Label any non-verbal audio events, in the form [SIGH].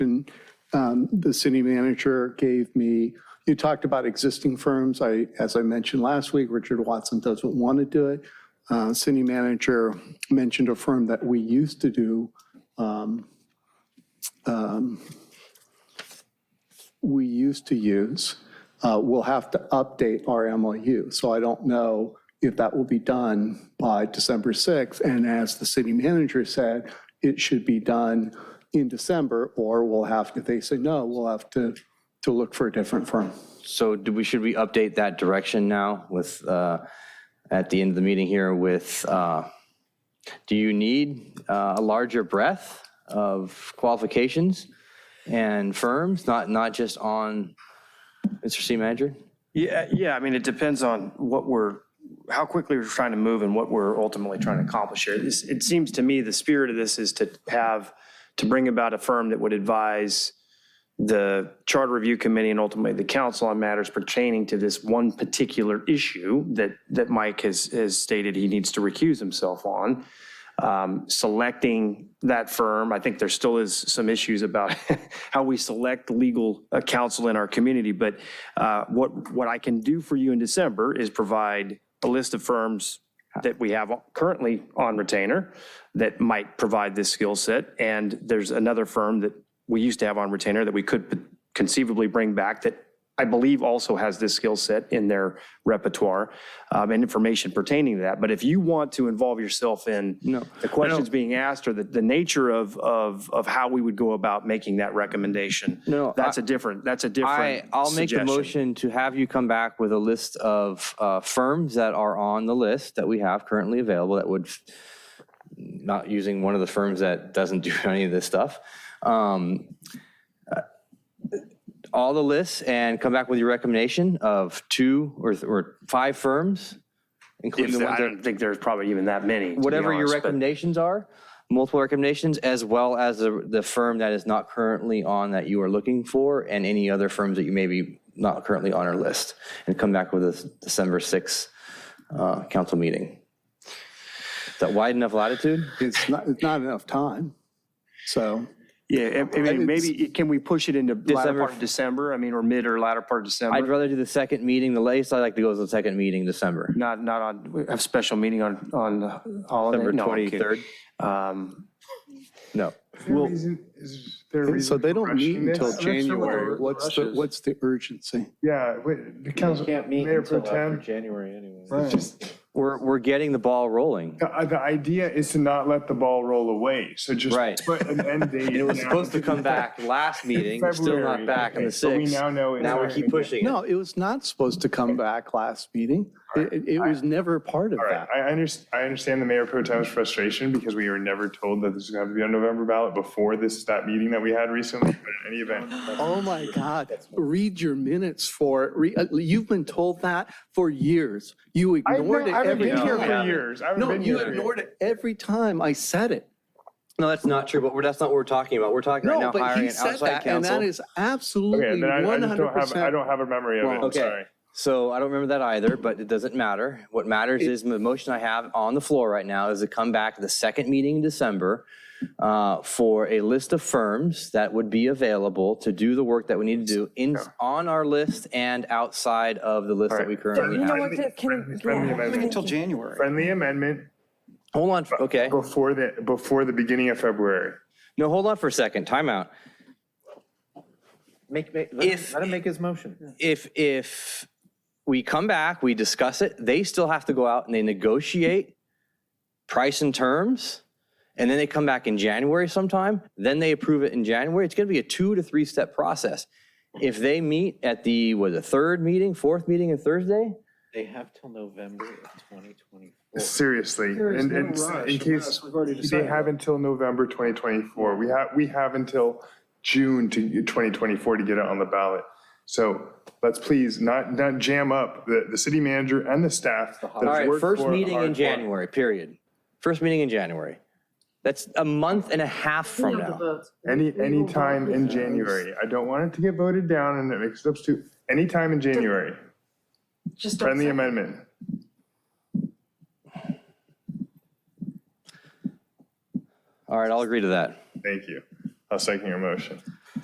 And um, the city manager gave me, you talked about existing firms. I, as I mentioned last week, Richard Watson doesn't want to do it. Uh, City manager mentioned a firm that we used to do. um, um, We used to use. Uh, We'll have to update our MOU. So I don't know if that will be done by December 6th. And as the city manager said, it should be done in December, or we'll have, if they say no, we'll have to, to look for a different firm. So do we, should we update that direction now with, uh, at the end of the meeting here with, uh, do you need uh, a larger breadth of qualifications and firms, not, not just on, Mr. City Manager? Yeah, yeah, I mean, it depends on what we're, how quickly we're trying to move and what we're ultimately trying to accomplish here. This, it seems to me the spirit of this is to have, to bring about a firm that would advise the Charter Review Committee and ultimately the council on matters pertaining to this one particular issue that, that Mike has, has stated he needs to recuse himself on um, selecting that firm. I think there still is some issues about [LAUGHS] how we select legal uh, counsel in our community. But uh, what, what I can do for you in December is provide a list of firms that we have currently on retainer that might provide this skill set. And there's another firm that we used to have on retainer that we could conceivably bring back that I believe also has this skill set in their repertoire um, and information pertaining to that. But if you want to involve yourself in the questions being asked or the, the nature of, of, of how we would go about making that recommendation, No, that's a different, that's a I, different I'll make the suggestion. motion to have you come back with a list of uh, firms that are on the list that we have currently available that would, f- not using one of the firms that doesn't [LAUGHS] do any of this stuff. Um, uh, All the lists and come back with your recommendation of two or, th- or five firms, including If the the- I ones that, don't think there's probably even that many. to be whatever your honest, but- recommendations are, multiple recommendations, as well as the, the firm that is not currently on that you are looking for and any other firms that you may be not currently on our list and come back with a December 6th uh, council meeting. Is that wide enough latitude? It's not, it's not enough time. So Yeah, I I mean, maybe, can we push it into latter December part of December? I mean, or mid or latter part of I'd December? rather do the second meeting, the latest I like to go is the second meeting, December. Not, not on, we have special meeting on, on uh, holiday? December No, I'm kidding. 23rd? Um, No. Well- reason- is there a so reason they for don't meet rushing this? until I'm not sure what the January. word What's rush the, is. what's the urgency? Yeah, wait, the council, Mayor Pro Tem. January anyway. Just, We're, we're getting the ball rolling. the, uh, the idea is to not let the ball roll away, so just. Right. Put an end date. It was now. supposed to come back last meeting, it's still not February. back on the Okay, so we 6th. now know it's Now we not keep gonna be- pushing it. No, it was not supposed to come back last meeting. It, it was never part of All right, that. I understand, I understand the Mayor Pro Tem's frustration because we were never told that this is gonna have to be on November ballot before this, that meeting that we had recently, but in any event. Oh my God, read your minutes for, it. Re- uh, you've been told that for years. You I've ignored it been- I haven't every been here for time. years. I haven't No, been you here for ignored it every time I said it. No, that's not true, but we're, that's not what we're talking about. We're talking right No, now but hiring he an said outside that, and that counsel. is absolutely Okay, then I I just don't have, I 100%. don't have a memory of it, Wrong. I'm Okay. sorry. So I don't remember that either, but it doesn't matter. What matters is the motion I have on the floor right now is to come back the second meeting in December uh, for a list of firms that would be available to do the work that we need to do in, on our list and outside of the list that we currently You know have. what, Jeff, can, Friendly amendment. yeah. January. Friendly amendment Hold on, okay. before the, before the beginning of February. No, hold on for a second, timeout. Make, make, let him- If- let him make his motion. if if we come back, we discuss it, they still have to go out and they negotiate price and terms, and then they come back in January sometime, then they approve it in January. It's gonna be a two to three step process. If they meet at the, was it third meeting, fourth meeting and Thursday? They have till November of 2024. Seriously, and and no and rush, in case, unless we've already they decided. have until November 2024. We have, we have until June to 2024 to get it on the ballot. So let's please not, not jam up the, the city manager and the staff. All right, first meeting in January, period. First meeting in January. That's a month and a half from now. Any, any time in January. I don't want it to get voted down and it makes it up to, any time in January. Just don't Friendly say- amendment. All right, I'll agree to that. Thank you. I'll second your motion.